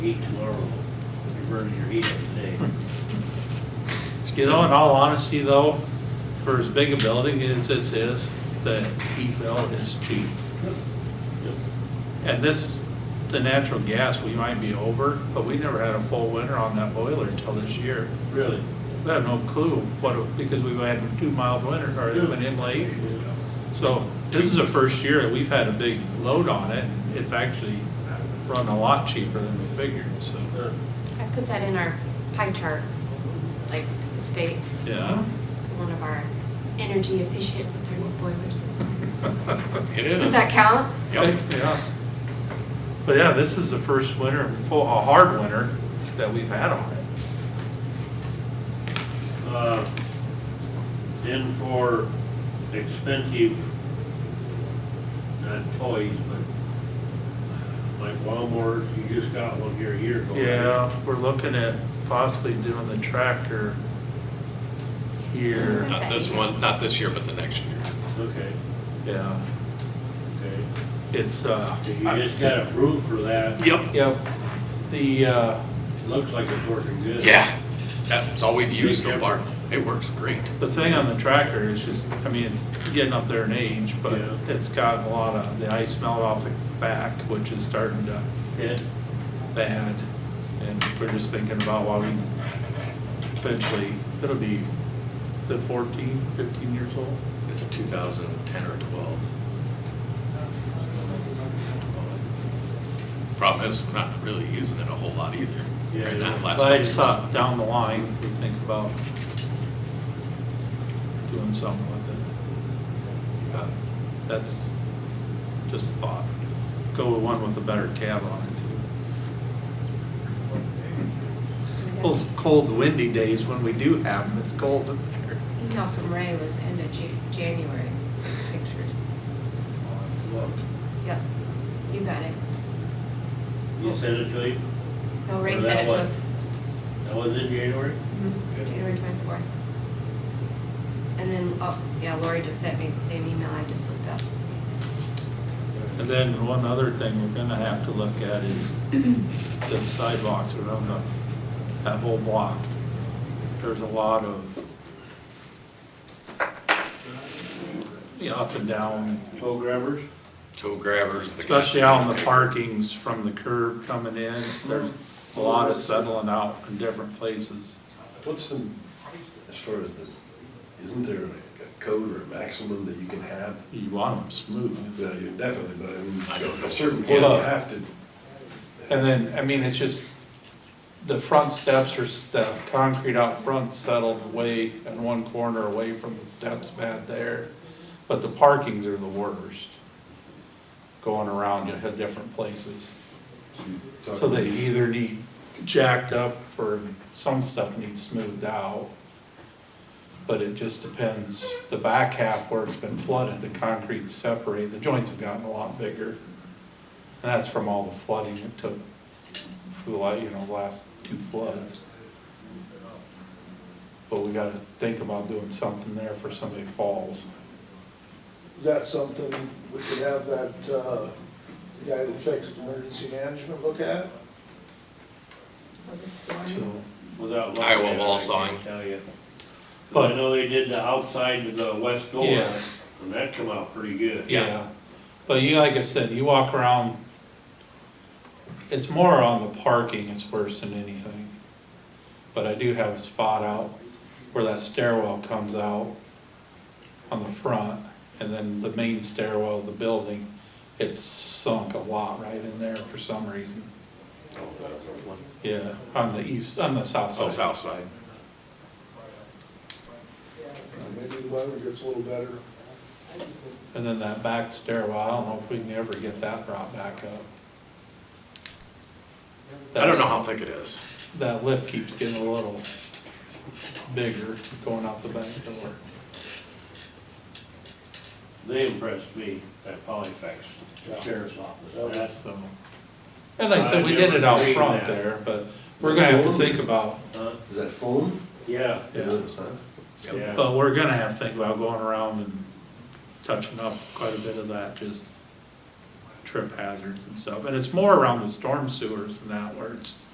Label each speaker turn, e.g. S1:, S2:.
S1: heat tomorrow, if you're burning your heat up today. You know, in all honesty though, for as big a building as this is, the heat bill is cheap. And this, the natural gas, we might be over, but we never had a full winter on that boiler until this year.
S2: Really?
S1: We have no clue what, it- because we've had two mild winters, or an inlay. So this is the first year that we've had a big load on it. It's actually run a lot cheaper than we figured, so,
S3: I put that in our pie chart, like to the state,
S1: yeah.
S3: one of our energy efficient with our new boiler system.
S2: It
S3: Does
S2: is.
S3: that count?
S2: Yep.
S1: Yeah. But yeah, this is the first winter, full, a hard winter that we've had on it.
S2: Uh, Then for expensive, not toys, but uh, like lawnmowers, you just got one here a year ago. right?
S1: Yeah, we're looking at possibly doing the tractor here,
S4: Not this one, not this year, but the next year.
S2: Okay,
S1: yeah.
S2: okay.
S1: It's, uh.
S2: So You just got approved for that.
S1: Yep, yep. The, uh,
S2: Looks like it's working good.
S4: Yeah, that's all we've used so far. It works great.
S1: the thing on the tractor is just, I mean, it's getting up there in age, but
S2: Yeah.
S1: it's gotten a lot of, the ice melt off the back, which is starting to
S2: Yeah.
S1: bad. And we're just thinking about why we eventually, it'll be, is it 14, 15 years old?
S4: It's a 2010 or 12. Problem is, we're not really using it a whole lot either.
S2: Yeah,
S4: Right now,
S2: yeah.
S4: last
S1: But I
S4: couple
S1: just
S4: years.
S1: thought down the line, we think about doing something with it. Uh, That's just a thought. Go with one with a better cab on it too.
S2: Oh.
S1: Those cold windy days when we do have them, it's cold up there.
S3: Email from Ray was the end of Ju- January, pictures.
S1: I'll have to look.
S3: Yep, you got it.
S2: You sent it to him?
S3: No, Ray
S2: Or
S3: said
S2: that
S3: it to
S2: was-
S3: us.
S2: That was in January?
S3: Mhm, January twenty-fourth. And then, oh, yeah, Lori just sent me the same email I just looked up.
S1: And then one other thing we're gonna have to look at is the sidewalks around the, that whole block. There's a lot of the up and down,
S2: Toe grabbers?
S4: Toe grabbers. the guys
S1: especially out in the
S4: that-
S1: parkings from the curb coming in. There's a lot of settling out in different places.
S5: What's the, as far as the, isn't there a code or a maximum that you can have? Uh,
S1: You want them smooth.
S5: Yeah, you Definitely, but
S4: I
S5: I
S4: don't
S5: mean,
S4: know.
S5: at a certain point, you
S1: Yeah.
S5: have to.
S1: And then, I mean, it's just, the front steps are, s- the concrete out front settled away in one corner away from the steps bad there. But the parkings are the worst, going around to hit different places.
S5: Talk-
S1: So they either need jacked up or some stuff needs smoothed out. But it just depends, the back half where it's been flooded, the concrete's separated, the joints have gotten a lot bigger. And that's from all the flooding it took for the, la- you know, last two floods. But we gotta think about doing something there for somebody falls.
S6: Is that something we could have that, uh, the guy that fixed emergency management look at?
S1: So,
S2: Without looking
S4: Iowa
S2: at it,
S4: wall
S2: I can't
S4: sawing.
S2: Tell you. I
S1: But-
S2: know they did the outside of the west door,
S1: Yeah.
S2: and that come out pretty good.
S4: Yeah.
S1: Yeah, but you, like I said, you walk around, it's more on the parking, it's worse than anything. But I do have a spot out where that stairwell comes out on the front, and then the main stairwell of the building, it's sunk a lot right in there for some reason. Yeah, on the east, on the south
S4: Oh,
S1: side.
S4: south side.
S6: Uh, Maybe the weather gets a little better.
S1: And then that back stairwell, I don't know if we can ever get that brought back up.
S4: I don't know how thick it is.
S1: That lip keeps getting a little bigger going out the back door.
S2: They impressed me, that Polyfex, the sheriff's
S6: That
S2: office.
S6: was-
S2: Oh, That's,
S1: So, and like I said, we did it out front there, but we're gonna have to think about,
S2: huh?
S5: Is that foam?
S2: Yeah,
S5: It
S1: yeah.
S5: is, huh?
S4: Yep.
S2: yeah.
S1: But we're gonna have to think about going around and touching up quite a bit of that, just trip hazards and stuff. And it's more around the storm sewers than that where it's